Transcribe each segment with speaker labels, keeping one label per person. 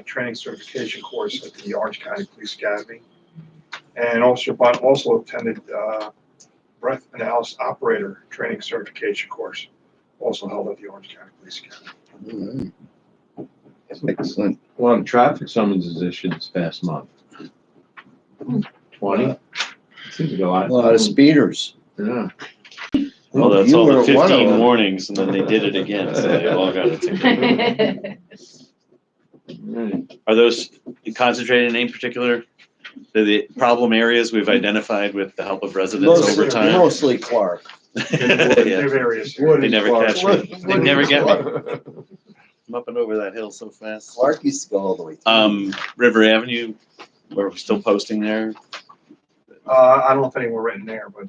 Speaker 1: a training certification course at the Orange County Police Academy. And Officer Bunt also attended uh, breath analysis operator training certification course, also held at the Orange County Police Academy.
Speaker 2: Excellent.
Speaker 3: A lot of traffic summonses issued this past month. Twenty? Seems to be a
Speaker 2: A
Speaker 3: lot.
Speaker 2: lot of speeders.
Speaker 3: Yeah.
Speaker 4: Well, Oh, that's
Speaker 2: You
Speaker 4: all the
Speaker 2: were one of
Speaker 4: fifteen
Speaker 2: them.
Speaker 4: warnings, and then they did it again, so they all got a ticket.
Speaker 3: Right.
Speaker 4: Are those concentrated in any particular, the, the problem areas we've identified with the help of residents
Speaker 2: Mostly-
Speaker 4: over time?
Speaker 2: Mostly Clark.
Speaker 4: Yeah,
Speaker 1: Different areas.
Speaker 2: Wood
Speaker 4: They
Speaker 2: is
Speaker 4: never
Speaker 2: Clark.
Speaker 4: catch
Speaker 2: Wood-
Speaker 4: me. They
Speaker 2: Wood is
Speaker 4: never get me.
Speaker 2: Clark.
Speaker 4: I'm up and over that hill so fast.
Speaker 2: Clark used to go all the way. through.
Speaker 4: Um, River Avenue, where we're still posting there,
Speaker 1: Uh, I don't know if any were written there, but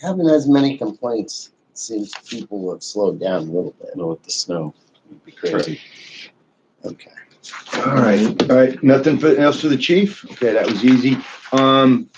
Speaker 2: Haven't as many complaints since people have slowed down a little bit.
Speaker 4: know, with the snow. It'd be Crazy.
Speaker 2: Okay.
Speaker 5: All right, all right, nothing for- else for the chief? Okay, that was easy. Um,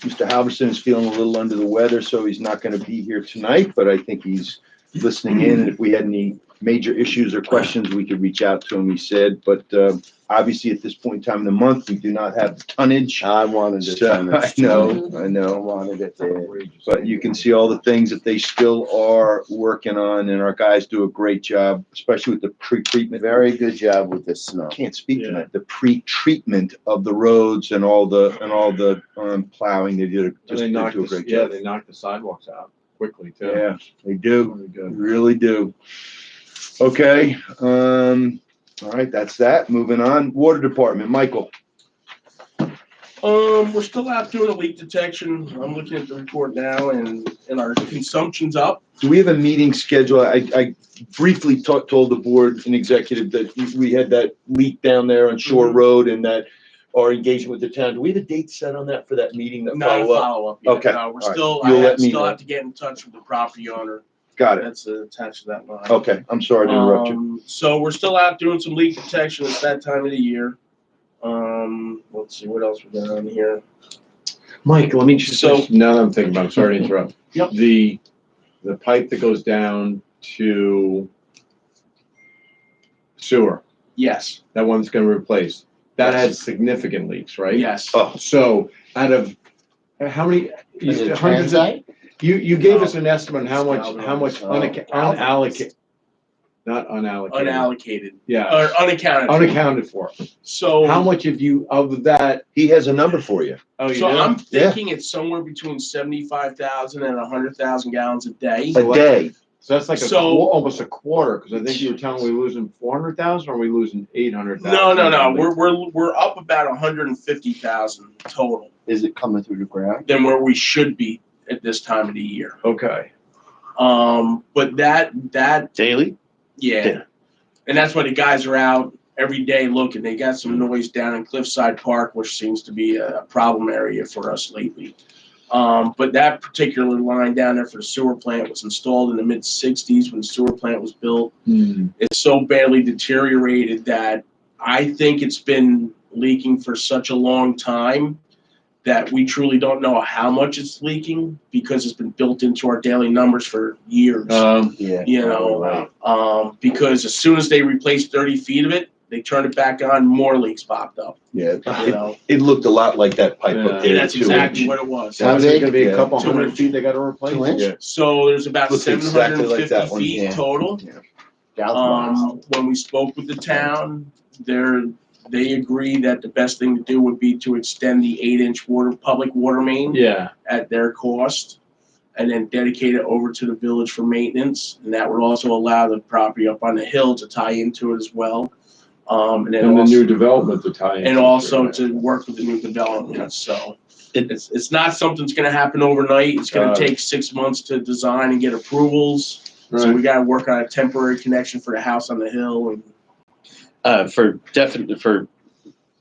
Speaker 5: Mr. Halverson is feeling a little under the weather, so he's not gonna be here tonight, but I think he's listening in. And If we had any major issues or questions, we could reach out to him, he said. But, uh, obviously, at this point in time in the month, we do not have the tonnage.
Speaker 2: I wanted to.
Speaker 5: So, I know, I
Speaker 2: I
Speaker 5: know.
Speaker 2: wanted it to.
Speaker 5: But you can see all the things that they still are working on, and our guys do a great job, especially with the pre-treatment.
Speaker 2: Very good job with the snow.
Speaker 5: can't speak
Speaker 4: Yeah.
Speaker 5: tonight. The pre-treatment of the roads and all the and all the um, plowing they did a-
Speaker 3: And
Speaker 5: just
Speaker 3: they
Speaker 5: they
Speaker 3: knocked,
Speaker 5: do a
Speaker 3: the-
Speaker 5: great
Speaker 3: yeah,
Speaker 5: job.
Speaker 3: they knocked the sidewalks out quickly too.
Speaker 5: Yeah, they do.
Speaker 3: Really
Speaker 5: They
Speaker 3: good.
Speaker 5: Really do. Okay. Um, all right, that's that. Moving on. Water department, Michael.
Speaker 6: Um, we're still out doing a leak detection. I'm looking at the report now and, and our consumption's up.
Speaker 5: Do we have a meeting schedule? I, I briefly ta- told the board and executive that we- we had that leak down there on Shore
Speaker 6: Mhm.
Speaker 3: Mm-hmm.
Speaker 5: Road and that our engagement with the town. Do we have a date set on that for that meeting? That
Speaker 6: Not a
Speaker 5: follow up?
Speaker 6: follow-up yet.
Speaker 5: Okay,
Speaker 6: No, we're
Speaker 5: all right.
Speaker 6: still,
Speaker 5: You'll
Speaker 6: I
Speaker 5: let me
Speaker 6: still
Speaker 5: know.
Speaker 6: have to get in touch with the property owner.
Speaker 5: Got it.
Speaker 6: That's attached to that line.
Speaker 5: Okay, I'm sorry to interrupt you.
Speaker 6: Um, So we're still out doing some leak detection. It's that time of the year. Um, let's see, what else we got on here?
Speaker 3: Mike, let me just,
Speaker 6: So-
Speaker 3: now that I'm thinking about, it, sorry to interrupt.
Speaker 6: Yep.
Speaker 3: The, the pipe that goes down to sewer,
Speaker 6: Yes,
Speaker 3: that one that's gonna replace, that had significant leaks, right?
Speaker 6: yes.
Speaker 5: Oh.
Speaker 3: So out of, how many,
Speaker 2: Is it
Speaker 3: hundreds of,
Speaker 2: transite?
Speaker 3: You, you gave us an estimate on how much,
Speaker 6: Thousand.
Speaker 3: how much unac-
Speaker 2: Thousand.
Speaker 3: unallocated, not unallocated,
Speaker 6: Unallocated,
Speaker 3: yeah,
Speaker 6: or Oh. unaccounted. for.
Speaker 3: unaccounted for.
Speaker 6: So.
Speaker 3: How much of you, of that,
Speaker 5: He has a number for you.
Speaker 3: oh, you
Speaker 6: So
Speaker 3: do?
Speaker 6: I'm
Speaker 5: Yeah.
Speaker 6: thinking it's somewhere between seventy-five thousand and a hundred thousand gallons a day.
Speaker 5: A day.
Speaker 3: So that's like a,
Speaker 6: So-
Speaker 3: qu- almost a quarter, because I think you were telling me we losing four hundred thousand, or are we losing eight hundred thousand?
Speaker 6: No, no, no, we're, we're, we're up about hundred and fifty thousand total
Speaker 2: Is it coming through the ground?
Speaker 6: than where we should be at this time of the year.
Speaker 3: Okay,
Speaker 6: Um, but that, that,
Speaker 4: Daily?
Speaker 6: yeah.
Speaker 4: Yeah.
Speaker 6: And that's why the guys are out every day looking. They got some noise down in Cliffside Park, which seems to be a problem area for us lately. Um, but that particular line down there for the sewer plant was installed in the mid sixties when the sewer plant was built. it's so badly deteriorated that I think it's been leaking for such a long time that we truly don't know how much it's leaking because it's been built into our daily numbers for years.
Speaker 5: Uh,
Speaker 3: um,
Speaker 2: Yeah.
Speaker 6: you know, um, because as soon as they replaced 30 feet of it, they turned it back on, more leaks popped up.
Speaker 5: Yeah.
Speaker 6: You
Speaker 5: It,
Speaker 6: know,
Speaker 5: it looked a lot like that pipe
Speaker 3: Yeah.
Speaker 5: up
Speaker 6: and
Speaker 5: there.
Speaker 6: that's
Speaker 5: too.
Speaker 6: exactly what it was.
Speaker 3: so
Speaker 2: How
Speaker 3: it's
Speaker 2: big?
Speaker 3: gonna be a
Speaker 5: Yeah.
Speaker 3: couple
Speaker 6: Two
Speaker 3: hundred
Speaker 6: inch.
Speaker 3: feet they gotta
Speaker 2: Two
Speaker 3: replace.
Speaker 2: inch?
Speaker 3: Yeah.
Speaker 6: So there's about
Speaker 5: Looks exactly like
Speaker 6: 750
Speaker 5: that one,
Speaker 6: feet
Speaker 2: yeah.
Speaker 6: total.
Speaker 2: Galvanized.
Speaker 6: Um, when we spoke with the town, there, they agreed that the best thing to do would be to extend the eight-inch water, public water main
Speaker 3: Yeah,
Speaker 6: at their cost, and then dedicate it over to the village for maintenance, and that would also allow the property up on the hill to tie into it as well. Um, and then
Speaker 3: and the new
Speaker 6: also,
Speaker 3: development to tie in.
Speaker 6: and also to work with the new development, so. It's, it's not something that's gonna happen overnight, it's gonna
Speaker 3: Got it.
Speaker 6: take six months to design and get approvals. So we
Speaker 3: Right,
Speaker 6: gotta work on a temporary connection for the house on the hill and.
Speaker 4: Uh, for definite, for,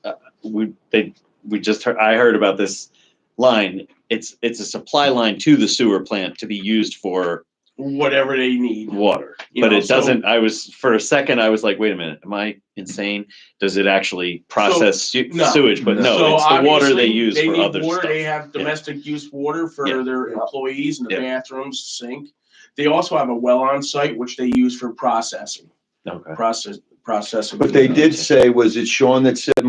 Speaker 4: uh, we, they, we just heard, I heard about this line. It's, it's a supply line to the sewer plant to be used for
Speaker 6: Whatever they need.
Speaker 4: water.
Speaker 6: You
Speaker 4: But
Speaker 6: know,
Speaker 4: it
Speaker 6: so-
Speaker 4: doesn't, I was, for a second, I was like, wait a minute, am I insane? Does it actually process su-
Speaker 6: no.
Speaker 4: sewage? But
Speaker 6: So
Speaker 4: no, it's the water they
Speaker 6: obviously,
Speaker 4: use
Speaker 6: they
Speaker 4: for
Speaker 6: need
Speaker 4: other
Speaker 6: water. They
Speaker 4: stuff.
Speaker 6: have
Speaker 4: Yeah.
Speaker 6: domestic use water for
Speaker 4: Yeah.
Speaker 6: their employees and the
Speaker 4: Yeah.
Speaker 6: bathrooms, sink. They also have a well on site, which they use for processing,
Speaker 4: Okay.
Speaker 6: process,
Speaker 7: process. of-
Speaker 6: What they did say was, it's Sean that said